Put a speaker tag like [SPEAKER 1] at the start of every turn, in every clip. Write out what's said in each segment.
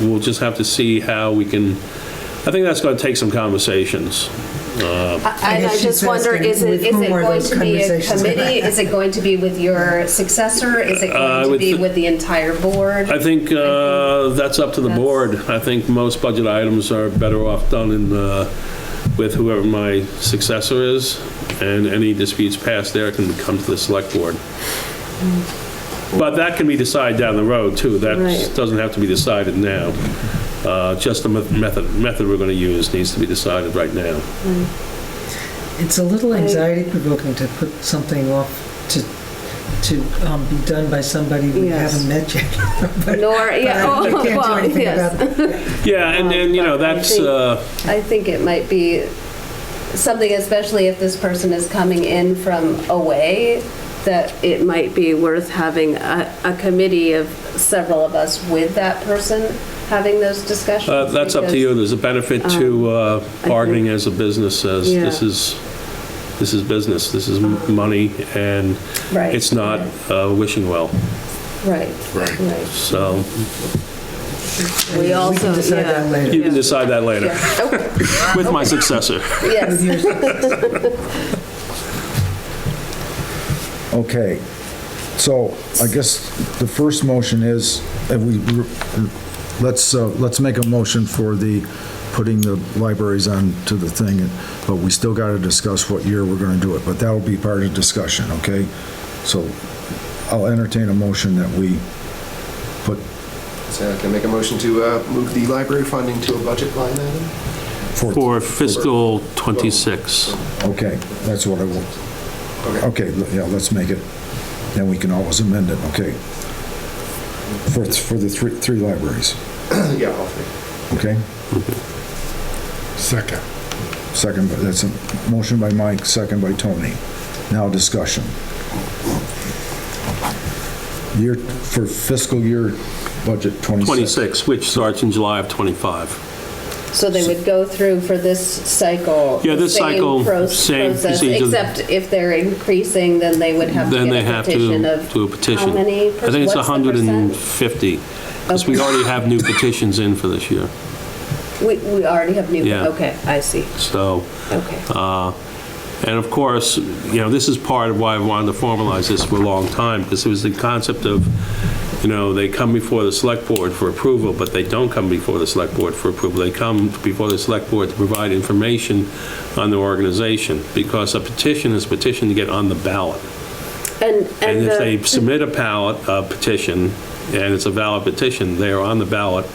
[SPEAKER 1] we'll just have to see how we can, I think that's gonna take some conversations.
[SPEAKER 2] I
[SPEAKER 3] And I
[SPEAKER 2] guess
[SPEAKER 3] just
[SPEAKER 2] she's
[SPEAKER 3] wonder,
[SPEAKER 2] asking
[SPEAKER 3] is it,
[SPEAKER 2] with
[SPEAKER 3] is
[SPEAKER 2] whom
[SPEAKER 3] it
[SPEAKER 2] were
[SPEAKER 3] going
[SPEAKER 2] those
[SPEAKER 3] to be a
[SPEAKER 2] conversations?
[SPEAKER 3] committee? Is it going to be with your successor? Is it
[SPEAKER 1] I
[SPEAKER 3] going to
[SPEAKER 1] would
[SPEAKER 3] be
[SPEAKER 1] th-
[SPEAKER 3] with the entire board?
[SPEAKER 1] Uh, I think uh, that's up to the
[SPEAKER 3] That's-
[SPEAKER 1] board. I think most budget items are better off done in, uh, with whoever my successor is, and any disputes past there can come to the select board. But that can be decided down the road, too. That
[SPEAKER 4] Right.
[SPEAKER 1] doesn't have to be decided now. Uh, Just the me- method, method we're going to use needs to be decided right now.
[SPEAKER 2] It's a little anxiety provoking to put something off to, to um, be done by somebody we
[SPEAKER 4] Yes.
[SPEAKER 2] haven't met yet. But-
[SPEAKER 3] Nor,
[SPEAKER 2] but
[SPEAKER 3] yeah,
[SPEAKER 2] I-
[SPEAKER 3] oh,
[SPEAKER 2] we can't do
[SPEAKER 3] well,
[SPEAKER 2] anything
[SPEAKER 3] yes.
[SPEAKER 2] about that.
[SPEAKER 1] Yeah, and, and, you know,
[SPEAKER 3] Um, but I
[SPEAKER 1] that's,
[SPEAKER 3] think-
[SPEAKER 1] uh,
[SPEAKER 3] I think it might be something, especially if this person is coming in from away, that it might be worth having a, a committee of several of us with that person having those discussions.
[SPEAKER 1] uh, that's up to you. There's a benefit
[SPEAKER 3] Um,
[SPEAKER 1] to uh, bargaining as a business, as
[SPEAKER 4] Yeah.
[SPEAKER 1] this is, this is business, this is m- money, and
[SPEAKER 3] because- Um, Right.
[SPEAKER 1] it's not uh, wishing well,
[SPEAKER 3] Right,
[SPEAKER 5] Right.
[SPEAKER 3] right.
[SPEAKER 1] so
[SPEAKER 3] We
[SPEAKER 2] We
[SPEAKER 3] also,
[SPEAKER 2] can decide that
[SPEAKER 3] yeah.
[SPEAKER 2] later.
[SPEAKER 1] you can decide that later,
[SPEAKER 3] Yeah. Oh. Okay.
[SPEAKER 1] with my successor.
[SPEAKER 3] Yes.
[SPEAKER 5] Okay, so I guess the first motion is, if we, let's, uh, let's make a motion for the, putting the libraries on to the thing, but we still got to discuss what year we're going to do it, but that'll be part of discussion, okay? So I'll entertain a motion that we put
[SPEAKER 6] So can I make a motion to uh, move the library funding to a budget line item?
[SPEAKER 5] forth.
[SPEAKER 1] For fiscal '26.
[SPEAKER 5] Okay, that's what I want. Okay, l- yeah, let's make it, then we can always amend it, okay? For, for the three, three libraries.
[SPEAKER 6] Yeah, all three.
[SPEAKER 5] Okay,
[SPEAKER 7] Second.
[SPEAKER 5] second, by- that's a motion by Mike, second by Tony. Now discussion. Year, for fiscal year budget 26.
[SPEAKER 1] 26, which starts in July of 25.
[SPEAKER 3] So they would go through for this cycle?
[SPEAKER 1] Yeah,
[SPEAKER 3] the
[SPEAKER 1] this
[SPEAKER 3] same
[SPEAKER 1] cycle,
[SPEAKER 3] pro-
[SPEAKER 1] same
[SPEAKER 3] process,
[SPEAKER 1] procedure.
[SPEAKER 3] Except if they're increasing, then they would have to
[SPEAKER 1] Then they
[SPEAKER 3] get a
[SPEAKER 1] have
[SPEAKER 3] petition
[SPEAKER 1] to
[SPEAKER 3] of.
[SPEAKER 1] do a petition.
[SPEAKER 3] How many? per-
[SPEAKER 1] I think it's
[SPEAKER 3] what's the
[SPEAKER 1] 150, because we
[SPEAKER 3] Okay.
[SPEAKER 1] already have new petitions in for this year,
[SPEAKER 3] percent? We, we already have new,
[SPEAKER 1] Yeah. Uh,
[SPEAKER 3] okay, I see,
[SPEAKER 1] so.
[SPEAKER 3] okay.
[SPEAKER 1] And of course, you know, this is part of why I wanted to formalize this for a long time, because it was the concept of, you know, they come before the select board for approval, but they don't come before the select board for approval. They come before the select board to provide information on their organization, because a petition is petition to get on the ballot.
[SPEAKER 3] And,
[SPEAKER 1] And
[SPEAKER 3] and
[SPEAKER 1] if they
[SPEAKER 3] the,
[SPEAKER 1] submit a ballot, a petition, and it's a valid petition, they are on the ballot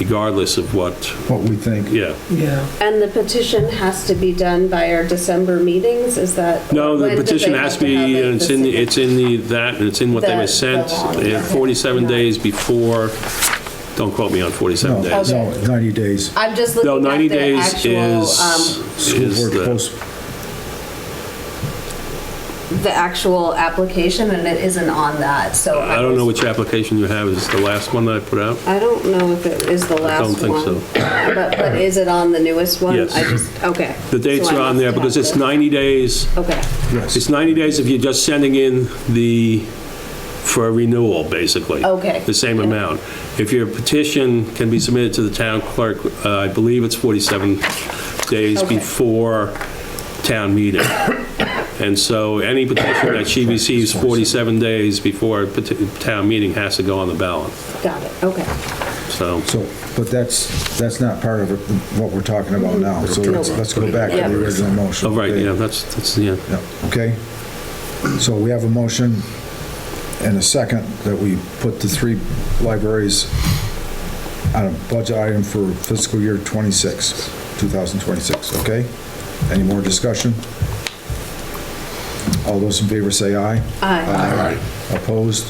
[SPEAKER 1] regardless of what,
[SPEAKER 5] What we think,
[SPEAKER 1] yeah.
[SPEAKER 2] Yeah.
[SPEAKER 3] and the petition has to be done by our December meetings, is that?
[SPEAKER 1] No,
[SPEAKER 3] when
[SPEAKER 1] the
[SPEAKER 3] do they
[SPEAKER 1] petition
[SPEAKER 3] have
[SPEAKER 1] has to
[SPEAKER 3] have
[SPEAKER 1] be,
[SPEAKER 3] it?
[SPEAKER 1] it's in, the it's in the, that, and it's in what they
[SPEAKER 3] The-
[SPEAKER 1] were sent
[SPEAKER 3] the law,
[SPEAKER 1] uh,
[SPEAKER 3] yeah.
[SPEAKER 1] 47 days before, don't quote me on 47
[SPEAKER 5] no,
[SPEAKER 1] days.
[SPEAKER 5] no, 90 days.
[SPEAKER 3] I'm just
[SPEAKER 1] No,
[SPEAKER 3] Oh, looking
[SPEAKER 1] 90
[SPEAKER 3] at the
[SPEAKER 1] days
[SPEAKER 3] actual,
[SPEAKER 1] is,
[SPEAKER 3] um,
[SPEAKER 5] School
[SPEAKER 1] is
[SPEAKER 5] board
[SPEAKER 1] the,
[SPEAKER 5] post-
[SPEAKER 3] the actual application, and it isn't on that, so.
[SPEAKER 1] I don't know which application you have, is it the last one that I put out?
[SPEAKER 3] I don't know if it is the last
[SPEAKER 1] don't
[SPEAKER 3] one.
[SPEAKER 1] think so.
[SPEAKER 3] But, but is it on the newest one?
[SPEAKER 1] Yes.
[SPEAKER 3] I just, okay.
[SPEAKER 1] The dates
[SPEAKER 3] So I
[SPEAKER 1] are on
[SPEAKER 3] must
[SPEAKER 1] there
[SPEAKER 3] have
[SPEAKER 1] because it's
[SPEAKER 3] this.
[SPEAKER 1] 90 days,
[SPEAKER 3] Okay,
[SPEAKER 1] it's 90 days if you're just sending in the, for a renewal, basically.
[SPEAKER 3] Okay.
[SPEAKER 1] The same amount. If your petition can be submitted to the town clerk, uh, I believe it's 47 days
[SPEAKER 3] Okay.
[SPEAKER 1] before town meeting. And so any petition that she receives 47 days before peti- town meeting has to go on the ballot,
[SPEAKER 3] got it, okay.
[SPEAKER 1] so.
[SPEAKER 5] So, but that's, that's not part of it- what we're talking about now, so let's, let's go back to
[SPEAKER 3] Yeah.
[SPEAKER 5] the original motion.
[SPEAKER 1] Oh, right,
[SPEAKER 5] okay?
[SPEAKER 1] yeah, that's, that's, yeah.
[SPEAKER 5] Yeah, okay. So we have a motion and a second that we put the three libraries on a budget item for fiscal year 26, 2026, okay? Any more discussion? All those in favor say aye.
[SPEAKER 3] Aye.
[SPEAKER 5] Opposed?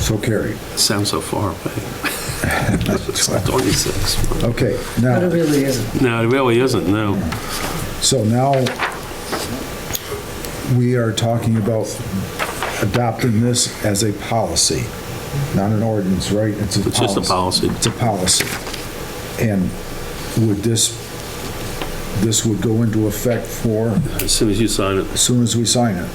[SPEAKER 5] So carried.
[SPEAKER 1] Sounds so far away. It's 26.
[SPEAKER 5] Okay,
[SPEAKER 2] But it
[SPEAKER 5] now,
[SPEAKER 2] really isn't.
[SPEAKER 1] No, it really isn't, no.
[SPEAKER 5] so now we are talking about adopting this as a policy, not an ordinance, right?
[SPEAKER 1] It's just a policy.
[SPEAKER 5] It's a policy. And would this, this would go into effect for,
[SPEAKER 1] As soon as you sign it.
[SPEAKER 5] as soon as we sign it?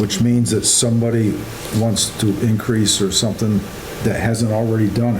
[SPEAKER 5] Which means that somebody wants to increase or something that hasn't already done it.